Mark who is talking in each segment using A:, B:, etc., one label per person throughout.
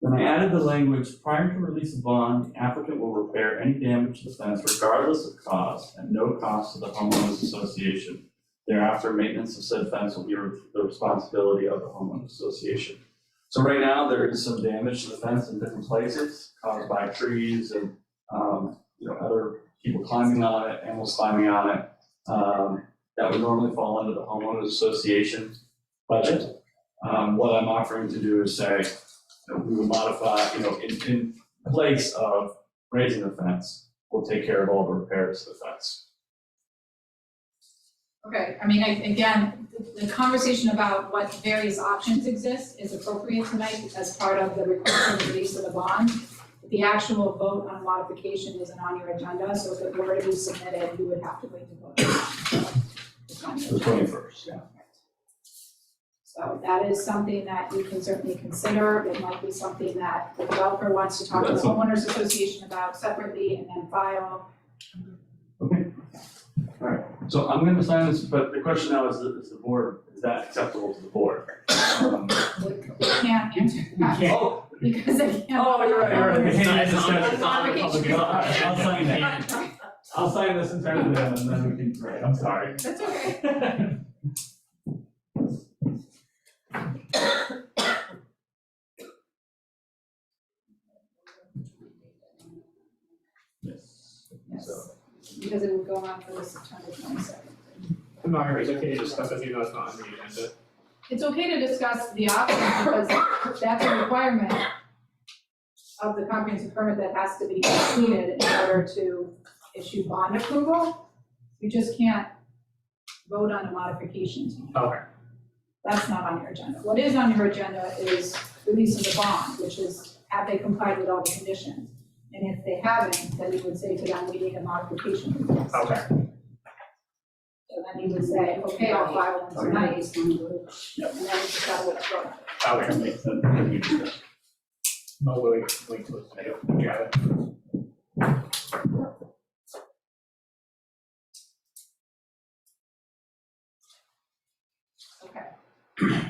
A: Then I added the language, prior to release of bond, the applicant will repair any damage to the fence regardless of cost and no cost to the homeowners association. Thereafter, maintenance of said fence will be re- the responsibility of the homeowners association. So right now, there is some damage to the fence in different places caused by trees and, um, you know, other people climbing on it, animals climbing on it. Um, that would normally fall under the homeowners association budget. Um, what I'm offering to do is say, you know, we will modify, you know, in, in place of raising the fence, we'll take care of all the repairs to the fence.
B: Okay, I mean, I, again, the- the conversation about what various options exist is appropriate tonight as part of the request and release of the bond. The actual vote on modification isn't on your agenda, so if it were to be submitted, you would have to wait to vote. It's on your
A: The
B: agenda.
A: twenty-first, yeah.
B: So that is something that you can certainly consider, it might be something that the developer wants to talk to the
A: That's all.
B: homeowners association about separately and then file.
A: So I'm gonna sign this, but the question now is, is the board, is that acceptable to the board? Um,
B: We we can't answer that
A: Oh,
B: because they can't.
A: oh, you're right, you're right. We can't use this
B: It's
A: guy.
B: on vacation.
A: I'll- I'll sign that.
B: Right, right.
A: I'll sign this in front of them and then we can, right, I'm sorry.
B: That's okay.
A: Yes.
B: Yes, because it will go on for the September twenty-second.
C: Margaret, it's okay to discuss with you, that's not on the agenda.
B: It's okay to discuss the options because that's a requirement of the comprehensive permit that has to be completed in order to issue bond approval. You just can't vote on a modification tonight.
C: Okay.
B: That's not on your agenda. What is on your agenda is release of the bond, which is have they complied with all the conditions? And if they haven't, then you would say to them, we need a modification request.
C: Okay.
B: So then you would say, okay, I'll file one tonight. And then it's got what's wrong.
C: Okay.
A: Makes sense. We can do that.
C: Oh, wait, wait, wait, till it's- I got it.
B: Okay.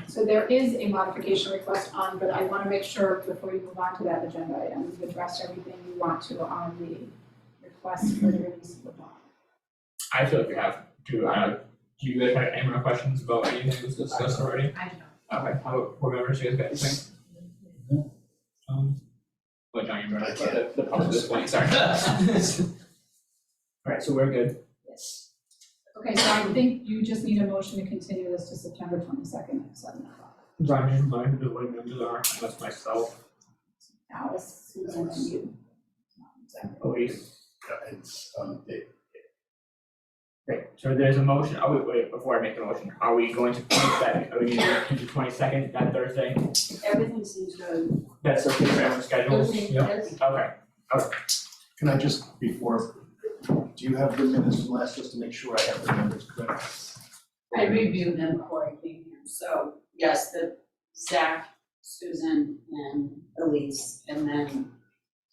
B: So there is a modification request on, but I want to make sure before you move on to that agenda item, you've addressed everything you want to on the request for the release of the bond.
C: I feel like we have, do, uh, do you guys have any more questions about anything that was discussed already?
B: I know.
C: Okay, how about board members, you guys got anything? Um, What, John, you remember the, the part of this point, sorry. Alright, so we're good.
B: Yes. Okay, so I think you just need a motion to continue this to September twenty-second at seven o'clock.
C: John, you mind the way members are, unless myself,
B: Alice, Susan, and you.
C: Elise.
D: Yeah, it's, um, it,
C: Great, so there's a motion, oh, wait, wait, before I make the motion, are we going to twenty second, are we going to twenty second, that Thursday?
E: Everything seems good.
C: That's okay for everyone's schedules?
E: Everything is.
C: Okay,
D: can I just, before, do you have the minutes from last, just to make sure I have the numbers correct?
E: I reviewed them before I came here, so yes, the Zach, Susan and Elise, and then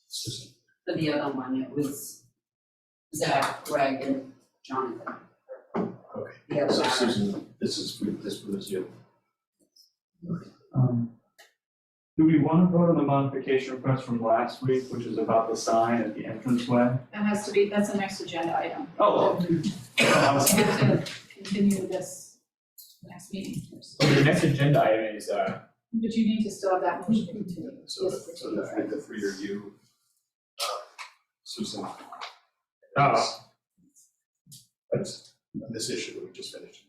D: Susan.
E: for the other one, it was Zach, Greg and Jonathan.
D: Okay.
E: The other
D: So
E: one.
D: Susan, this is, for- this was you.
A: Um, Do we wanna vote on the modification request from last week, which is about the sign at the entranceway?
B: That has to be, that's the next agenda item.
A: Oh, I
B: We
A: was-
B: have to continue this next meeting first.
C: so the next agenda item is, uh,
B: But you need to still have that motion to continue.
D: So,
B: Yes,
D: so the,
B: please.
D: the three of you, uh, Susan.
C: Oh.
D: That's this issue that we just finished.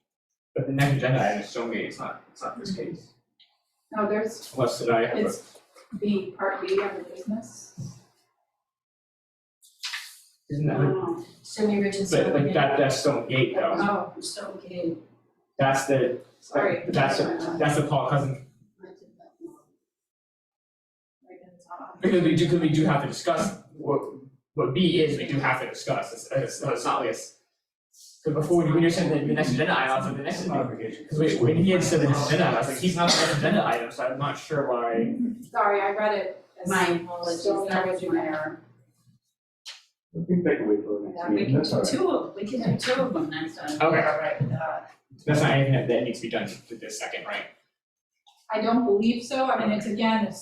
C: but the next agenda item is Stonegate, it's not, it's not this case.
B: No, there's,
C: Unless did I have a,
B: it's the part B under business.
C: isn't that,
E: No,
F: Cindy Richardson.
C: but like that, that's Stonegate though,
B: Oh,
E: I'm still okay.
C: that's the,
B: sorry.
C: that's, the-
B: Right,
C: that's the Paul Cousins.
B: and it's not on.
C: Because we do, because we do have to discuss, what, what B is, we do have to discuss, it's, it's, it's not like it's. Cause before, when you said the, the next agenda item, I was like, the next agenda
A: Modification.
C: Cause wait, when he had said an agenda, I was like, he's not an agenda item, so I'm not sure why.
B: Sorry, I read it as.
E: My apologies,
B: Still
E: that was
B: averaging
E: my
B: there.
E: error.
A: I think they can wait for the next
B: Yeah,
A: meeting, that's all right.
E: Two of, we can do two of them next time.
C: Okay.
E: All right, uh,
C: That's not anything that, that needs to be done to this second, right?
B: I don't believe so, I mean, it's again, if